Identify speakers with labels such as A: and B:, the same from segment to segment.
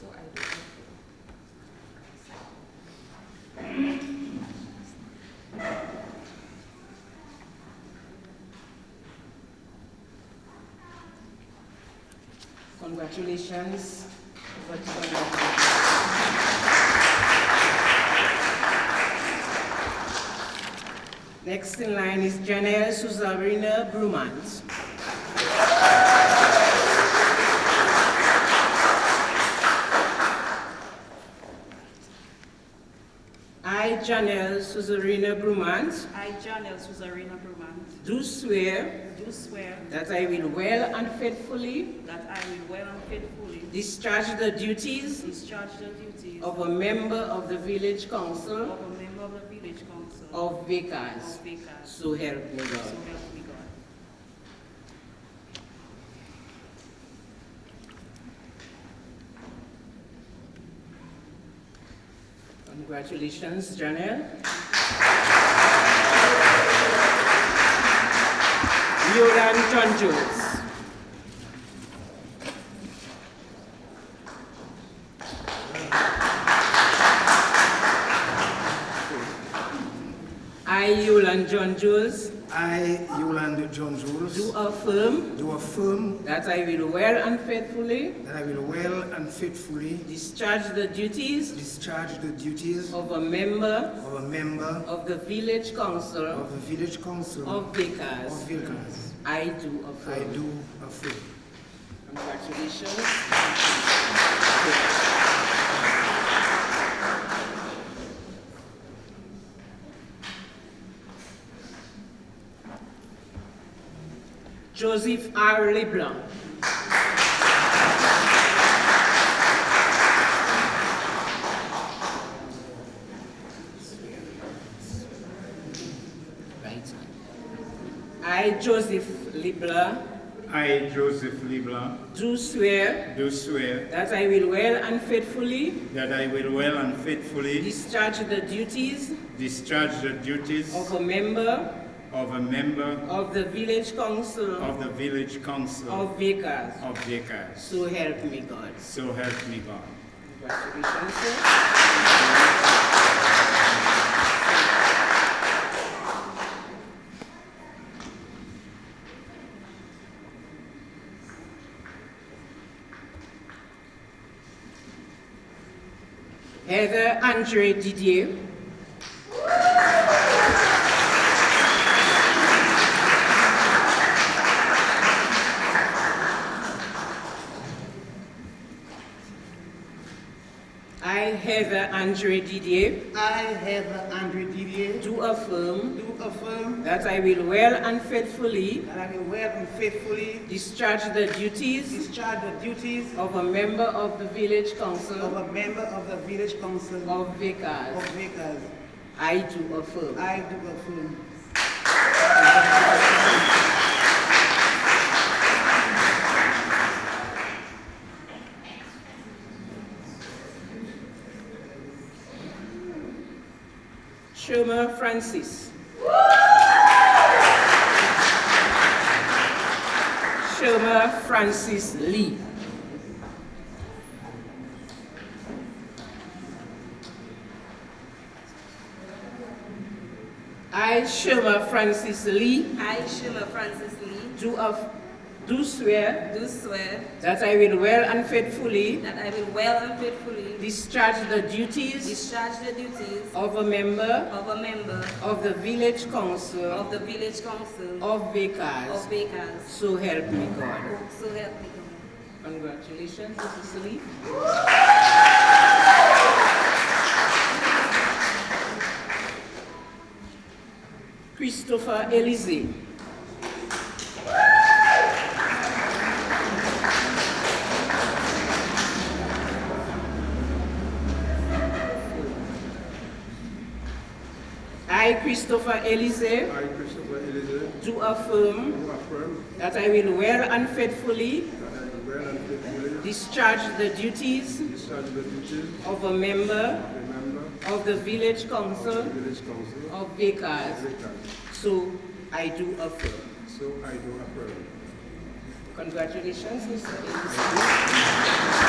A: So I would Congratulations. But, uh, Next in line is Janelle Suzarina Brumans. I, Janelle Suzarina Brumans,
B: I, John L. Suzerain Brumant,
A: do swear
B: do swear
A: that I will well and faithfully
B: that I will well and faithfully
A: discharge the duties
B: discharge the duties of
A: of a member of the Village Council
B: a member of the Village Council
A: of Vickers.
B: of Vickers.
A: So help me
B: So
A: God.
B: help me God.
A: Congratulations, Janelle. Yoran John Jones. I, Yolan John Jones,
C: I, Yolande John
A: do
C: Jules,
A: affirm
C: do affirm
A: that I will well and faithfully
C: that I will well and faithfully
A: discharge the duties
C: discharge the duties
A: of a member
C: of a member
A: of the Village Council
C: of the Village Council
A: of Vickers.
C: of Vilkas.
A: I do
C: I
A: affirm.
C: do affirm.
A: Congratulations. Joseph R. LeBlanc. Right. I, Joseph LeBlanc,
D: I, Joseph Leblanc,
A: do swear
D: do swear
A: that I will well and faithfully
D: that I will well and faithfully
A: discharge the duties
D: discharge the duties
A: of a member
D: of a member
A: of the Village Council
D: of the Village Council
A: of Vickers.
D: of Vickers.
A: So help me God.
D: So help me God.
A: Congratulations, sir. Heather Andre Didier. I, Heather Andre Didier,
C: I, Heather Andre Didier,
A: do affirm
C: do affirm
A: that I will well and faithfully
C: that I will well and faithfully
A: discharge the duties
C: discharge the duties
A: of a member of the Village Council
C: a member of the Village Council
A: of Vickers.
C: Vickers.
A: I do affirm.
C: I do affirm.
A: Shoma Francis. Shoma Francis Lee. I, Shoma Francis Lee,
B: I, Sheila Francis Lee,
A: do of, do swear
B: do swear
A: that I will well and faithfully
B: that I will well and faithfully
A: discharge the duties
B: discharge the duties
A: of a member
B: of a member
A: of the Village Council
B: of the Village Council
A: of Vickers.
B: of Vickers.
A: So help me God.
B: So help me God.
A: Congratulations, Mrs. Lee. Christopher Elise. I, Christopher Elise,
E: I, Christopher Elizabeth,
A: do affirm
E: do affirm
A: that I will well and faithfully
E: that I will well and faithfully
A: Discharge the duties
E: discharge the duties
A: of a member
E: of a member
A: of the Village Council
E: of the Village Council
A: of
E: of
A: Vickers.
E: Vickers.
A: So I do affirm.
E: So I do affirm.
A: Congratulations, Mr.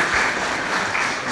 A: Ellis.